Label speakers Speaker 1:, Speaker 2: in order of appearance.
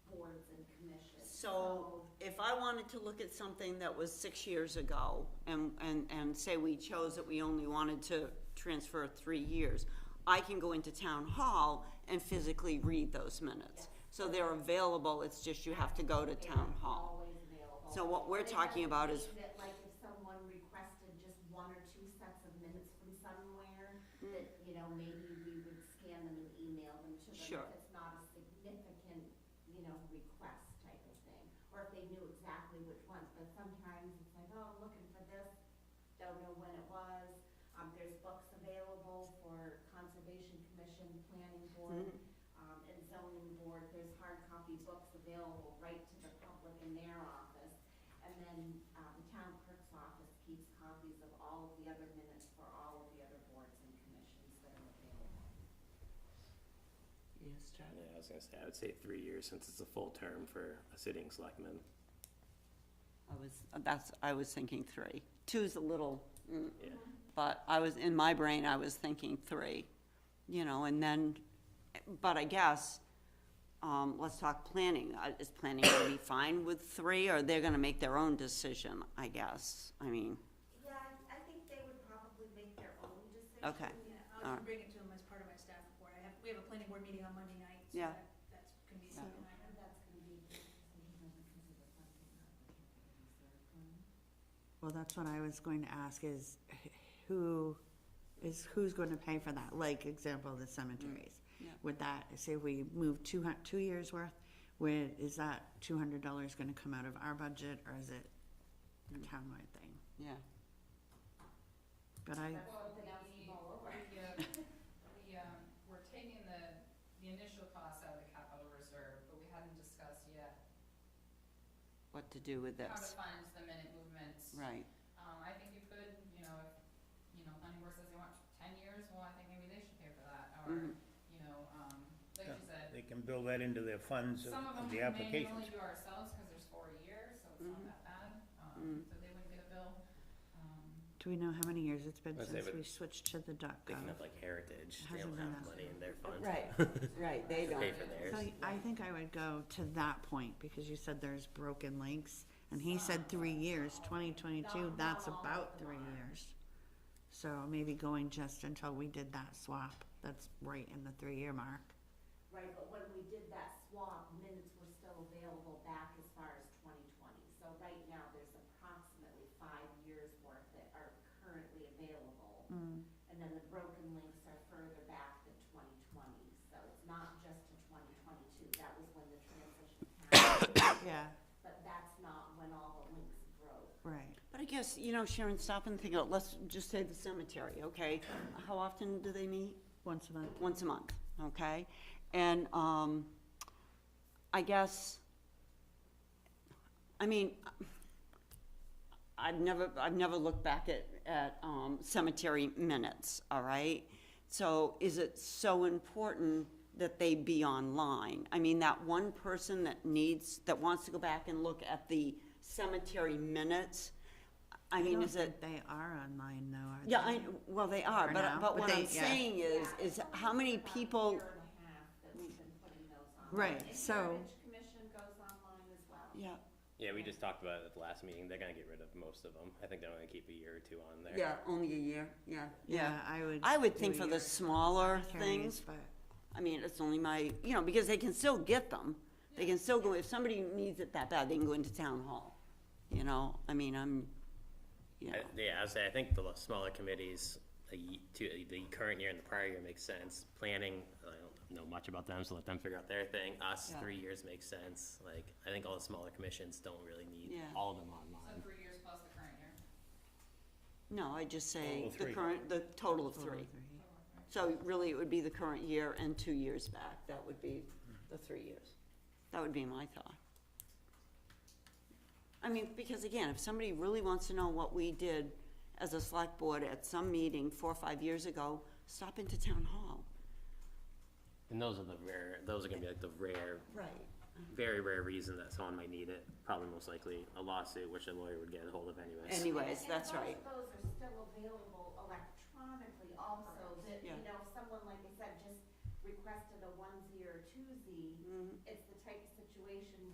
Speaker 1: So if I wanted to look at something that was six years ago and, and, and say we chose that we only wanted to transfer three years, I can go into town hall and physically read those minutes. So they're available, it's just you have to go to town hall.
Speaker 2: Always available.
Speaker 1: So what we're
Speaker 2: But it doesn't
Speaker 1: talking about is-
Speaker 2: mean That like if someone requested just one or two sets of minutes from somewhere,
Speaker 1: Mm.
Speaker 2: that, you know, maybe we would scan them and email them to them.
Speaker 1: Sure.
Speaker 2: If it's not a significant, you know, request type of thing, or if they knew exactly which ones, but sometimes it's like, oh, I'm looking for this, don't know when it was. Um, there's books available for Conservation Commission, Planning
Speaker 1: hmm? Mm-hmm.
Speaker 2: Board, um, and zoning board, there's hard copy books available right to the public in their office. And then, uh, the town clerk's office keeps copies of all of the other minutes for all of the other boards and commissions that are available.
Speaker 1: Yes, Charlie?
Speaker 3: Yeah, I was gonna say, I would say three years since it's a full term for a sitting selectman.
Speaker 1: I was, that's, I was thinking three. Two's a little, mm,
Speaker 3: Yeah,
Speaker 1: but I was, in my brain, I was thinking three, you know, and then, but I guess, um, let's talk planning. Uh, Is planning gonna be fine with three, or they're gonna make their own decision, I guess? I mean,
Speaker 2: Yeah, I, I think they would probably make their own decision.
Speaker 1: Okay.
Speaker 4: Yeah,
Speaker 1: All
Speaker 4: I'll
Speaker 1: right.
Speaker 4: bring it to them as part of my staff report. I have, we have a planning board meeting on Monday night, so
Speaker 1: Yeah.
Speaker 4: that, that's gonna be a
Speaker 1: Yeah.
Speaker 4: second item.
Speaker 2: And Oh, that's gonna be, decision on the consider funding, not the capital reserve fund.
Speaker 5: Well, that's what I was going to ask is h- who, is who's going to pay for that? Like example, the cemeteries.
Speaker 1: yeah.
Speaker 5: Would that, say we move two hun- two years worth, where is that two hundred dollars gonna come out of our budget or is it a townwide thing?
Speaker 1: yeah.
Speaker 5: But I,
Speaker 2: That's something else to mull over.
Speaker 6: We, uh, we, um, we're taking the, the initial cost out of the capital reserve, but we hadn't discussed yet
Speaker 1: What to do with
Speaker 6: how to
Speaker 1: this,
Speaker 6: fund the minute movements.
Speaker 1: right,
Speaker 6: Um, I think you could, you know, if, you know, planning board says they want ten years, well, I think maybe they should pay for that, or,
Speaker 1: Mhm.
Speaker 6: you know, um, like
Speaker 7: Yeah.
Speaker 6: you said,
Speaker 7: They can build that into their funds of
Speaker 6: some of them
Speaker 7: the
Speaker 6: we
Speaker 7: applications.
Speaker 6: manually do ourselves, cause there's four years, so it's
Speaker 1: Mhm.
Speaker 6: not that bad, um,
Speaker 1: Mm.
Speaker 6: so they wouldn't get a bill. Um,
Speaker 5: do we know how many years it's been
Speaker 3: I'd say
Speaker 5: since
Speaker 3: with-
Speaker 5: we switched to the dot
Speaker 3: Thinking
Speaker 5: gov?
Speaker 3: of like heritage, they
Speaker 5: Hasn't
Speaker 3: don't
Speaker 5: been
Speaker 3: have
Speaker 5: that
Speaker 3: money in their funds.
Speaker 1: Right, right, they
Speaker 3: To
Speaker 1: don't.
Speaker 3: pay for theirs.
Speaker 5: So I think I would go to that point because you said there's broken links and he said three years, twenty twenty-two,
Speaker 2: Not-
Speaker 5: that's
Speaker 2: not all
Speaker 5: about
Speaker 2: of them
Speaker 5: three
Speaker 2: are.
Speaker 5: years. So maybe going just until we did that swap, that's right in the three-year mark.
Speaker 2: Right, but when we did that swap, minutes were still available back as far as twenty twenty. So right now, there's approximately five years worth that are currently available.
Speaker 5: Mm.
Speaker 2: And then the broken links are further back than twenty twenty, so it's not just to twenty twenty-two, that was when the transition happened.
Speaker 5: Yeah,
Speaker 2: But that's not when all the links broke.
Speaker 5: right.
Speaker 1: But I guess, you know, Sharon, stop and think, of- let's just say the cemetery, okay? How often do they meet?
Speaker 5: Once a month.
Speaker 1: once a month, okay? And, um, I guess, I mean, I've never, I've never looked back at, at, um, cemetery minutes, all right? So is it so important that they be online? I mean, that one person that needs, that wants to go back and look at the cemetery minutes, I mean,
Speaker 5: don't
Speaker 1: is it?
Speaker 5: think They are online though, are they?
Speaker 1: Yeah, I, well, they are,
Speaker 5: Or
Speaker 1: but,
Speaker 5: now,
Speaker 1: but
Speaker 5: but
Speaker 1: what
Speaker 5: they-
Speaker 1: I'm
Speaker 5: yeah.
Speaker 1: saying is,
Speaker 2: Yeah,
Speaker 1: is
Speaker 2: it's only
Speaker 1: how many
Speaker 2: been about a
Speaker 1: people,
Speaker 2: year and a half that we've been putting those on.
Speaker 5: Right,
Speaker 2: And
Speaker 5: so-
Speaker 2: Heritage Commission goes online as well.
Speaker 1: yeah,
Speaker 3: Yeah, we just talked about it at the last meeting. They're gonna get rid of most of them. I think they're only gonna keep a year or two on there.
Speaker 1: yeah, only a year, yeah, yeah.
Speaker 5: Yeah, I would.
Speaker 1: I would
Speaker 5: do
Speaker 1: think for the
Speaker 5: your
Speaker 1: smaller
Speaker 5: carries,
Speaker 1: things,
Speaker 5: But
Speaker 1: I mean, it's only my, you know, because they can still get them. They can still go, if somebody needs it that bad, they can go into town hall, you know, I mean, I'm, you know,
Speaker 3: I- Yeah, I would say, I think the smaller committees, the, ye- to, the current year and the prior year makes sense. Planning, I don't know much about them, so let them figure out their thing. Us,
Speaker 1: Yeah.
Speaker 3: three years makes sense. Like, I think all the smaller commissions don't really need
Speaker 1: Yeah.
Speaker 3: all of them
Speaker 6: so
Speaker 3: online.
Speaker 6: three years plus the current year.
Speaker 1: no, I just say
Speaker 7: Total of
Speaker 1: the
Speaker 7: three.
Speaker 1: current, the total of
Speaker 5: total
Speaker 1: three.
Speaker 5: three.
Speaker 1: So really, it would be the current year and two years back, that would be the three years. That would be my thought. I mean, because again, if somebody really wants to know what we did as a select board at some meeting four or five years ago, stop into town hall.
Speaker 3: And those are the rare, those are gonna be like the rare
Speaker 1: Right.
Speaker 3: very rare reason that someone might need it. Probably most likely a lawsuit, which a lawyer would get a hold of anyways.
Speaker 1: Anyways,
Speaker 2: And-
Speaker 1: that's right.
Speaker 2: And most of those are still available electronically also, that,
Speaker 1: Yeah.
Speaker 2: you know, if
Speaker 1: Mm-hmm.
Speaker 2: someone, like I said, just requested a onesie or a twosie, it's the type of situation